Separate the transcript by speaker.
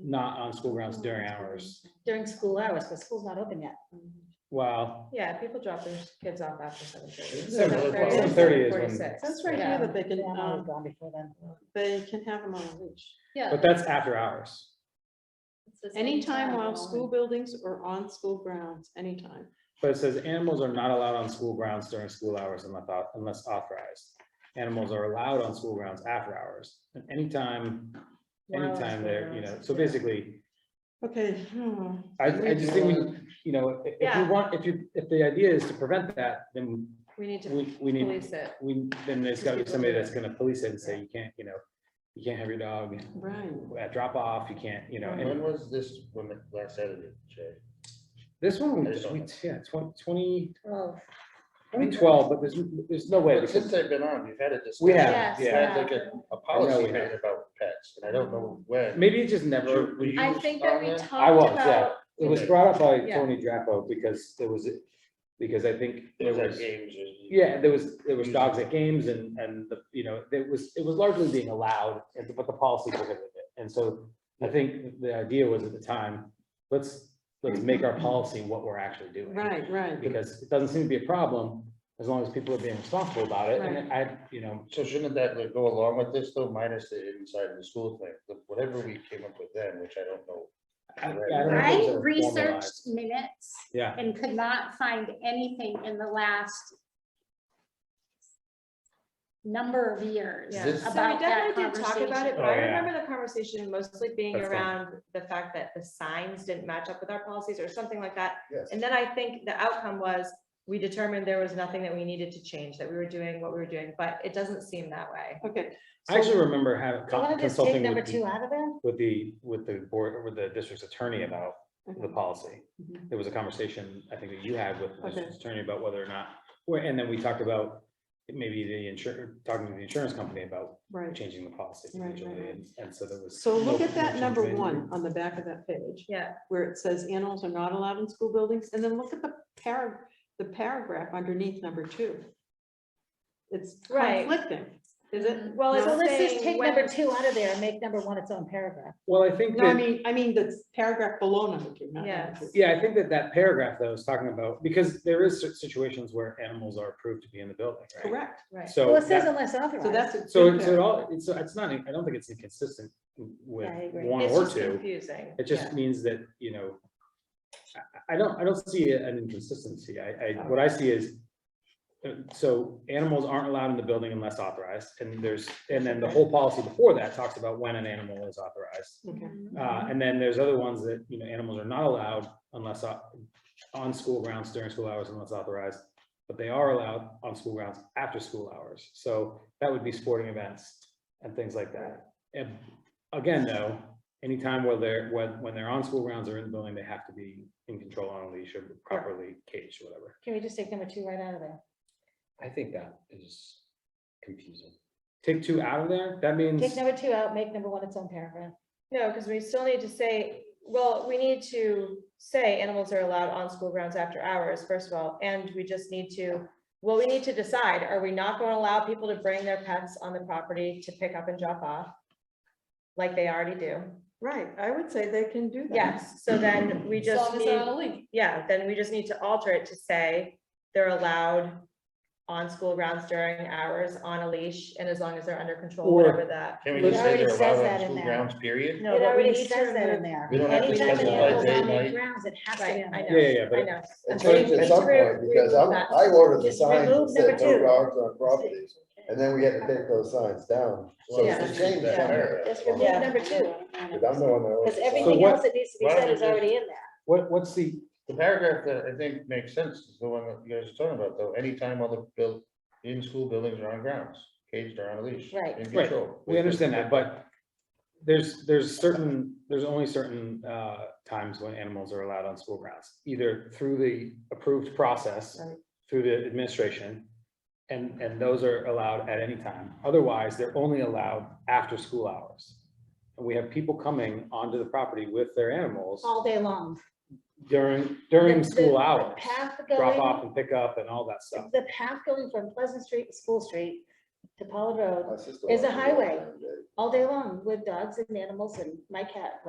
Speaker 1: not on school
Speaker 2: Oh,
Speaker 1: grounds during hours.
Speaker 3: during school hours, because school's not open yet.
Speaker 1: Wow,
Speaker 2: Yeah, people drop their kids off after seven thirty.
Speaker 1: Seven o'clock. 7:30 is when-
Speaker 4: That's right here that they can,
Speaker 3: Yeah, I'm already
Speaker 4: um,
Speaker 3: gone before then.
Speaker 4: they can have them on a leash.
Speaker 2: Yeah.
Speaker 1: but that's after hours.
Speaker 2: it's the same
Speaker 4: Anytime
Speaker 2: time,
Speaker 4: while
Speaker 2: though.
Speaker 4: school buildings or on school grounds, anytime.
Speaker 1: But it says animals are not allowed on school grounds during school hours unless, au- unless authorized. Animals are allowed on school grounds after hours, and anytime,
Speaker 2: While on
Speaker 1: anytime
Speaker 2: school
Speaker 1: there, you know,
Speaker 2: grounds,
Speaker 1: so
Speaker 2: yeah.
Speaker 1: basically,
Speaker 4: Okay. hmm,
Speaker 1: I, I just think, we, you know, i- if
Speaker 2: Yeah.
Speaker 1: you want, if you, if the idea is to prevent that, then
Speaker 2: We need to
Speaker 1: we, we need,
Speaker 2: police it.
Speaker 1: we, then there's gotta be
Speaker 2: Just people
Speaker 1: somebody
Speaker 2: do
Speaker 1: that's
Speaker 2: it.
Speaker 1: gonna police it and say, you can't, you know, you can't have your dog
Speaker 4: Right.
Speaker 1: at drop off, you can't, you know, and
Speaker 2: Mm-hmm.
Speaker 5: When was this, when, the- last Saturday, Jay?
Speaker 1: This one, we,
Speaker 5: This
Speaker 1: we,
Speaker 5: one.
Speaker 1: yeah, twen- twenty,
Speaker 2: Oh,
Speaker 1: twenty twelve, but there's, there's no way,
Speaker 5: But Since
Speaker 1: because
Speaker 5: they've been on, we've had a discussion.
Speaker 1: we
Speaker 2: Yes,
Speaker 1: have,
Speaker 5: We
Speaker 1: yeah.
Speaker 5: had like a,
Speaker 1: I know
Speaker 5: a policy
Speaker 1: we have.
Speaker 5: made about pets, and I don't know when.
Speaker 1: Maybe it just never,
Speaker 5: Were you
Speaker 2: I think that we
Speaker 5: on
Speaker 2: talked
Speaker 5: that?
Speaker 1: I was, yeah,
Speaker 2: about,
Speaker 1: it was brought up by
Speaker 2: Yeah.
Speaker 1: Tony Drapo because there was, because I think
Speaker 5: It
Speaker 1: there
Speaker 5: was Mm-hmm. at
Speaker 1: was,
Speaker 5: games. and-
Speaker 1: yeah, there was, there was dogs at games and, and the, you know, it was, it was largely being allowed, and- but the policy prohibited it. And so I think the idea was at the time, let's, let's make our policy what we're actually doing.
Speaker 4: Right, right.
Speaker 1: because it doesn't seem to be a problem as long as people are being responsible about it. And I, you know,
Speaker 5: So shouldn't that like, go along with this though, minus the inside of the school thing, The- whatever we came up with then, which I don't know.
Speaker 1: I I don't know if
Speaker 6: I
Speaker 1: those are
Speaker 6: researched
Speaker 1: formalized.
Speaker 6: minutes
Speaker 1: Yeah,
Speaker 6: and could not find anything in the last number of years
Speaker 2: Yeah.
Speaker 5: This-
Speaker 2: So
Speaker 6: about
Speaker 2: we
Speaker 6: that
Speaker 2: definitely did talk about it, but
Speaker 1: Oh,
Speaker 2: I
Speaker 1: yeah.
Speaker 2: remember the conversation mostly being
Speaker 1: That's fine.
Speaker 2: around the fact that the signs didn't match up with our policies or something like that.
Speaker 5: Yes.
Speaker 2: And then I think the outcome was, we determined there was nothing that we needed to change, that we were doing what we were doing, but it doesn't seem that way.
Speaker 4: Okay.
Speaker 1: I actually remember having
Speaker 3: I
Speaker 1: con-
Speaker 3: want to just take
Speaker 1: consulting
Speaker 3: number
Speaker 1: with
Speaker 3: two
Speaker 1: the,
Speaker 3: out of there.
Speaker 1: with the, with the board, with the district's attorney about the
Speaker 4: okay.
Speaker 1: policy.
Speaker 4: Mhm.
Speaker 1: There was a conversation, I think that you had with the
Speaker 4: Okay.
Speaker 1: district's attorney about whether or not, where, and then we talked about maybe the insurance, talking to the insurance company about
Speaker 4: Right.
Speaker 1: changing the policy
Speaker 4: Right, right,
Speaker 1: potentially,
Speaker 4: right.
Speaker 1: and, and so there was.
Speaker 4: So look
Speaker 1: no
Speaker 4: at that
Speaker 1: change
Speaker 4: number
Speaker 1: made.
Speaker 4: one on the back of that page
Speaker 2: Yeah,
Speaker 4: where it says animals are not allowed in school buildings. And then look at the parag, the paragraph underneath number two. It's
Speaker 2: Right. Mm-hmm.
Speaker 4: conflicting, is it?
Speaker 2: well, it's
Speaker 3: So
Speaker 2: saying.
Speaker 3: let's just take
Speaker 2: when-
Speaker 3: number two out of there and make number one its own paragraph.
Speaker 1: Well, I think
Speaker 4: No, I
Speaker 1: that.
Speaker 4: mean, I mean, the paragraph below number two, not number
Speaker 2: Yes.
Speaker 4: two.
Speaker 1: Yeah, I think that that paragraph that I was talking about, because there is cer- situations where animals are approved to be in the building, right?
Speaker 4: Correct.
Speaker 2: Right.
Speaker 1: So,
Speaker 3: Well, it says
Speaker 1: that-
Speaker 3: unless
Speaker 4: So
Speaker 3: authorized.
Speaker 4: that's. a
Speaker 1: so
Speaker 4: good
Speaker 1: it's at
Speaker 4: paragraph.
Speaker 1: all, it's, it's not, I don't think it's inconsistent with
Speaker 3: Yeah, I agree.
Speaker 1: one
Speaker 2: It's
Speaker 1: or
Speaker 2: just
Speaker 1: two.
Speaker 2: Confusing.
Speaker 1: It just means that, you know, I, I don't, I don't see an inconsistency. I, I,
Speaker 3: Oh.
Speaker 1: what I see is, uh, so animals aren't allowed in the building unless authorized, and there's, and then the whole policy before that talks about when an animal is authorized.
Speaker 4: Okay.
Speaker 1: Uh, and then there's other ones that, you know, animals are not allowed unless au- on school grounds during school hours unless authorized. But they are allowed on school grounds after school hours. So that would be sporting events and things like that. And again, though, anytime where they're, when, when they're on school grounds or in the building, they have to be in control on a leash or properly caged, or whatever.
Speaker 3: Can we just take number two right out of there?
Speaker 7: I think that is confusing.
Speaker 1: Take two out of there, that means,
Speaker 3: Take number two out, make number one its own paragraph.
Speaker 2: No, because we still need to say, well, we need to say animals are allowed on school grounds after hours, first of all, and we just need to, well, we need to decide, are we not going to allow people to bring their pets on the property to pick up and drop off? Like they already do.
Speaker 4: Right, I would say they can do that.
Speaker 2: Yes, so then we just need, yeah, then we just need to alter it to say they're allowed on school grounds during hours on a leash and as long as they're under control,
Speaker 1: Or-
Speaker 2: whatever that.
Speaker 5: Can we
Speaker 3: It
Speaker 5: just say
Speaker 3: already
Speaker 5: they're
Speaker 3: says
Speaker 5: allowed
Speaker 3: that
Speaker 5: on
Speaker 3: in
Speaker 5: school
Speaker 3: there.
Speaker 5: grounds, period?
Speaker 3: No,
Speaker 2: It
Speaker 3: but we
Speaker 2: already
Speaker 3: need
Speaker 2: says that
Speaker 3: that
Speaker 2: in
Speaker 3: in there.
Speaker 5: We don't have to
Speaker 3: Anytime an
Speaker 5: specify
Speaker 3: animal's
Speaker 5: day,
Speaker 3: on the
Speaker 5: night.
Speaker 3: grounds, it has to be
Speaker 2: Right,
Speaker 3: on
Speaker 2: I
Speaker 3: there.
Speaker 2: know,
Speaker 1: Yeah, yeah, yeah,
Speaker 2: I
Speaker 1: but
Speaker 2: know.
Speaker 8: It's
Speaker 2: I'm
Speaker 8: changed
Speaker 2: saying
Speaker 8: at some
Speaker 2: remove-
Speaker 8: point, because I,
Speaker 2: remove that.
Speaker 8: I ordered the
Speaker 3: Just
Speaker 8: signs
Speaker 3: remove
Speaker 8: that said
Speaker 3: number
Speaker 8: no
Speaker 3: two.
Speaker 8: dogs on properties, and then we had to take those signs down. So
Speaker 4: Yeah.
Speaker 8: it's changed
Speaker 5: Yeah.
Speaker 8: somewhere.
Speaker 3: Just
Speaker 8: But
Speaker 3: remove number two,
Speaker 8: I'm the one that ordered
Speaker 3: because
Speaker 8: the
Speaker 3: everything
Speaker 1: what-
Speaker 3: else that needs to be
Speaker 5: why don't
Speaker 3: said
Speaker 5: we
Speaker 3: is
Speaker 5: just-
Speaker 3: already in there.
Speaker 1: what, what's the,
Speaker 5: The paragraph that I think makes sense is the one that you guys are talking about, though, anytime other built, in school buildings or on grounds, caged or on a leash.
Speaker 3: Right.
Speaker 5: in
Speaker 1: Right.
Speaker 5: control.
Speaker 1: We understand that, but there's, there's certain, there's only certain uh, times when animals are allowed on school grounds, either through the approved process,
Speaker 2: Right.
Speaker 1: through the administration, and, and those are allowed at any time. Otherwise, they're only allowed after school hours. And we have people coming onto the property with their animals
Speaker 3: All day long.
Speaker 1: during, during
Speaker 3: The- the-
Speaker 1: school
Speaker 3: the
Speaker 1: hours.
Speaker 3: Path
Speaker 1: Drop
Speaker 3: going,
Speaker 1: off and pick up and all that stuff.
Speaker 3: the path going from Pleasant Street to School Street to Pollard Road
Speaker 8: My sister
Speaker 3: Is
Speaker 8: watches
Speaker 3: a
Speaker 8: it
Speaker 3: highway.
Speaker 8: every day.
Speaker 3: all day long with dogs and animals and my cat